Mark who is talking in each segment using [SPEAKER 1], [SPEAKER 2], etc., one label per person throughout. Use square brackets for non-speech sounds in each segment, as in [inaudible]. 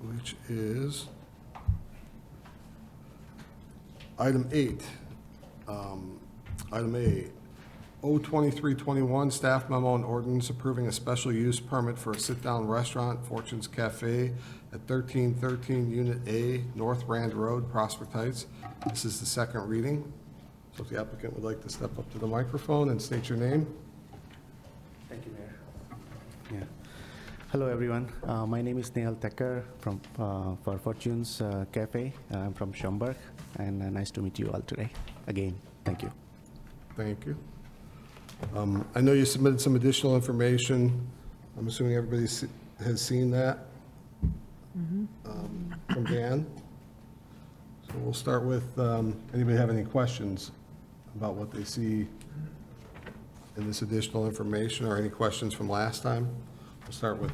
[SPEAKER 1] which is item eight. Um, Item A, O twenty-three twenty-one, staff memo and ordinance approving a special use permit for a sit-down restaurant, Fortune's Cafe, at thirteen thirteen Unit A, North Rand Road, Prospect Heights. This is the second reading. So if the applicant would like to step up to the microphone and state your name.
[SPEAKER 2] Thank you, Mayor. Yeah. Hello, everyone. Uh, My name is Nehal Thacker from, uh, for Fortune's uh, Cafe. I'm from Schaumburg, and uh, nice to meet you all today. Again, thank you.
[SPEAKER 1] Thank you. Um, I know you submitted some additional information. I'm assuming everybody se- has seen that um, from Dan. So we'll start with, um, anybody have any questions about what they see in this additional information or any questions from last time? We'll start with,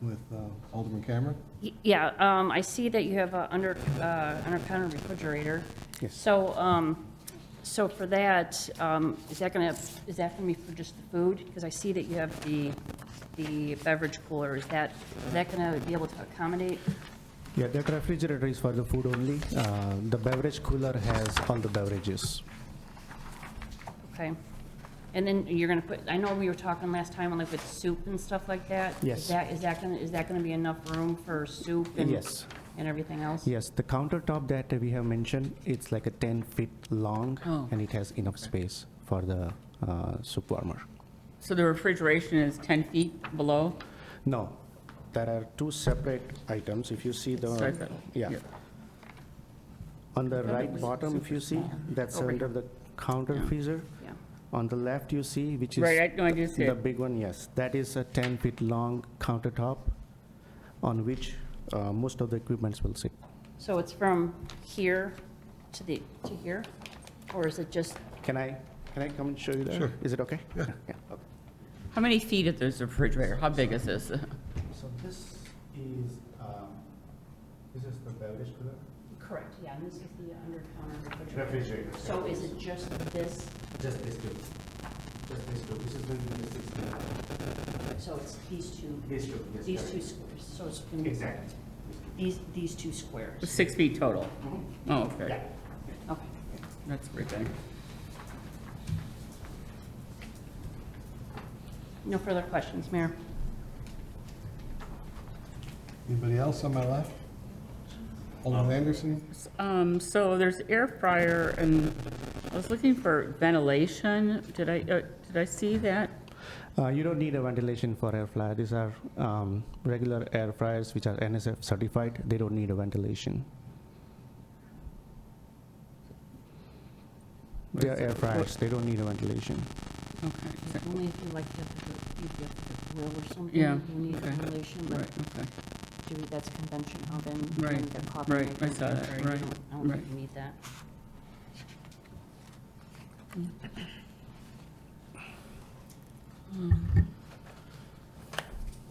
[SPEAKER 1] with uh, Alderman Cameron.
[SPEAKER 3] Y- Yeah, um, I see that you have a under, uh, under counter refrigerator.
[SPEAKER 2] Yes.
[SPEAKER 3] So, um, so for that, um, is that gonna, is that gonna be for just the food? Because I see that you have the, the beverage cooler, is that, is that gonna be able to accommodate?
[SPEAKER 2] Yeah, that refrigerator is for the food only. Uh, The beverage cooler has all the beverages.
[SPEAKER 3] Okay. And then you're gonna put, I know we were talking last time on like with soup and stuff like that.
[SPEAKER 2] Yes.
[SPEAKER 3] Is that, is that gonna, is that gonna be enough room for soup and?
[SPEAKER 2] Yes.
[SPEAKER 3] And everything else?
[SPEAKER 2] Yes, the countertop that we have mentioned, it's like a 10 feet long,
[SPEAKER 4] Oh.
[SPEAKER 2] and it has enough space for the uh, soup warmer.
[SPEAKER 4] So the refrigeration is 10 feet below?
[SPEAKER 2] No, there are two separate items, if you see the,
[SPEAKER 4] Separate,
[SPEAKER 2] yeah.
[SPEAKER 4] yeah.
[SPEAKER 2] On the
[SPEAKER 4] it
[SPEAKER 2] right
[SPEAKER 4] was
[SPEAKER 2] bottom, if you see,
[SPEAKER 4] small.
[SPEAKER 2] that's
[SPEAKER 4] Over
[SPEAKER 2] under the counter
[SPEAKER 4] Oh, Yeah.
[SPEAKER 2] freezer.
[SPEAKER 3] Yeah.
[SPEAKER 2] On the left, you see, which is.
[SPEAKER 4] Right, I- no, I do see
[SPEAKER 2] The
[SPEAKER 4] it.
[SPEAKER 2] big one, yes. That is a 10-feet-long countertop on which uh, most of the equipments will sit.
[SPEAKER 3] So it's from here to the, to here? Or is it just,
[SPEAKER 2] Can I, can I come and show you that?
[SPEAKER 1] Sure.
[SPEAKER 2] Is it okay?
[SPEAKER 1] Yeah.
[SPEAKER 2] okay.
[SPEAKER 4] How many feet is this refrigerator? How big is this?
[SPEAKER 2] So this is, um, this is the beverage cooler?
[SPEAKER 3] correct, yeah, and this is the under-counter refrigerator.
[SPEAKER 2] Refrigerator.
[SPEAKER 3] So is it just this,
[SPEAKER 2] Just this two. Just this two. This is going to be the sixteen.
[SPEAKER 3] so it's these two,
[SPEAKER 2] This two, yes.
[SPEAKER 3] these
[SPEAKER 2] correct.
[SPEAKER 3] two squares, so it's. gonna be-
[SPEAKER 2] Exactly.
[SPEAKER 3] These, these two squares,
[SPEAKER 4] Six feet total? Oh, okay.
[SPEAKER 2] Yeah.
[SPEAKER 3] okay.
[SPEAKER 4] That's pretty big.
[SPEAKER 3] No further questions, Mayor?
[SPEAKER 1] Anybody else on my left? Alderman Anderson?
[SPEAKER 4] Um, so there's air fryer and I was looking for ventilation. Did I, uh, did I see that?
[SPEAKER 2] Uh, you don't need a ventilation for air fryer. These are um, regular air fryers which are NSF certified. They don't need a ventilation. They are air fryers. They don't need a ventilation.
[SPEAKER 4] Okay, is that-
[SPEAKER 3] Only if you like to, if you have to grill or something,
[SPEAKER 4] Yeah,
[SPEAKER 3] you need a
[SPEAKER 4] okay.
[SPEAKER 3] ventilation,
[SPEAKER 4] Right,
[SPEAKER 3] but
[SPEAKER 4] okay.
[SPEAKER 3] do, that's convention oven.
[SPEAKER 4] Right,
[SPEAKER 3] and the copper
[SPEAKER 4] right,
[SPEAKER 3] maker
[SPEAKER 4] I saw that,
[SPEAKER 3] and
[SPEAKER 4] right,
[SPEAKER 3] I don't- I don't think
[SPEAKER 4] right.
[SPEAKER 3] you need that.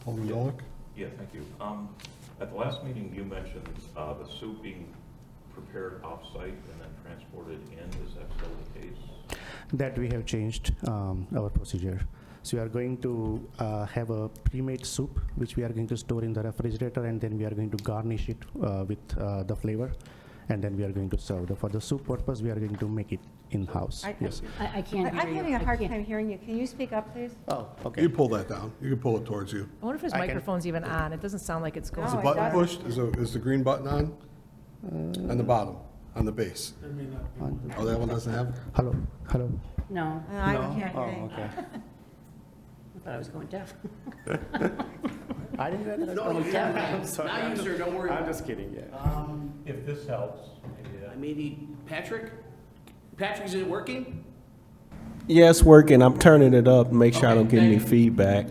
[SPEAKER 1] Alderman Golick?
[SPEAKER 5] Yeah, thank you. Um, At the last meeting, you mentioned uh, the soup being prepared off-site and then transported in. Is that still the case?
[SPEAKER 2] That we have changed um, our procedure. So we are going to uh, have a pre-made soup which we are going to store in the refrigerator and then we are going to garnish it uh, with uh, the flavor and then we are going to serve. The- For the soup purpose, we are going to make it in-house.
[SPEAKER 3] I-
[SPEAKER 2] Yes.
[SPEAKER 3] I, I can't hear you.
[SPEAKER 6] I'm having a hard
[SPEAKER 3] can't.
[SPEAKER 6] time hearing you. Can you speak up, please?
[SPEAKER 2] Oh,
[SPEAKER 1] You
[SPEAKER 2] okay.
[SPEAKER 1] pull that down. You can pull it towards you.
[SPEAKER 7] I wonder if his
[SPEAKER 2] I can-
[SPEAKER 7] microphone's even on. It doesn't sound like it's going.
[SPEAKER 1] Is the
[SPEAKER 6] Oh, it
[SPEAKER 1] button
[SPEAKER 6] doesn't.
[SPEAKER 1] pushed? Is, the- is the green button on? On the bottom, on the base? Oh, that one doesn't have?
[SPEAKER 2] Hello, hello.
[SPEAKER 3] No,
[SPEAKER 6] No, Uh, I can't hear
[SPEAKER 2] Oh,
[SPEAKER 6] you.
[SPEAKER 2] okay.
[SPEAKER 3] I thought I was going deaf.
[SPEAKER 2] I didn't realize. No, I'm sorry.
[SPEAKER 8] Now you, sir, don't worry.
[SPEAKER 2] I'm just kidding, yeah.
[SPEAKER 8] Um,
[SPEAKER 5] If this helps, maybe that
[SPEAKER 8] I may need, Patrick? Patrick, is it working?
[SPEAKER 9] Yeah, it's working. I'm turning it up to make sure I don't
[SPEAKER 8] Okay,
[SPEAKER 9] get any
[SPEAKER 8] thank you.
[SPEAKER 9] feedback.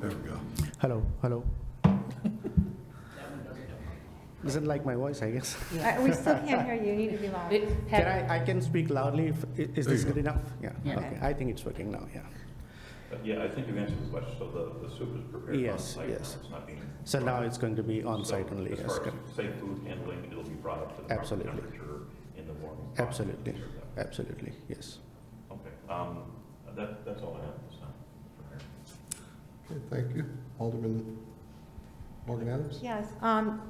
[SPEAKER 1] There we go.
[SPEAKER 2] Hello, [laughs] hello. Doesn't like my voice, I guess.
[SPEAKER 6] Uh, We still can't hear you. You need to be louder.
[SPEAKER 2] Can I, I can speak loudly, if- i-
[SPEAKER 1] There
[SPEAKER 2] is this
[SPEAKER 1] you go.
[SPEAKER 2] good enough? Yeah,
[SPEAKER 4] Yeah.
[SPEAKER 2] okay, I think it's working now, yeah.
[SPEAKER 5] But Uh, Yeah, I think you answered the question. So the, the soup is prepared
[SPEAKER 2] Yes,
[SPEAKER 5] on-site?
[SPEAKER 2] yes.
[SPEAKER 5] It's not being,
[SPEAKER 2] So now it's going to be
[SPEAKER 5] so
[SPEAKER 2] on-site only,
[SPEAKER 5] as
[SPEAKER 2] yes,
[SPEAKER 5] far as
[SPEAKER 2] correct.
[SPEAKER 5] safe food handling, it'll be brought up to the proper
[SPEAKER 2] Absolutely.
[SPEAKER 5] temperature in the morning.
[SPEAKER 2] Absolutely, absolutely, yes.
[SPEAKER 5] Okay, um, that, that's all I have at this time.
[SPEAKER 1] Okay, thank you. Alderman Morgan Adams?
[SPEAKER 6] Yes, um,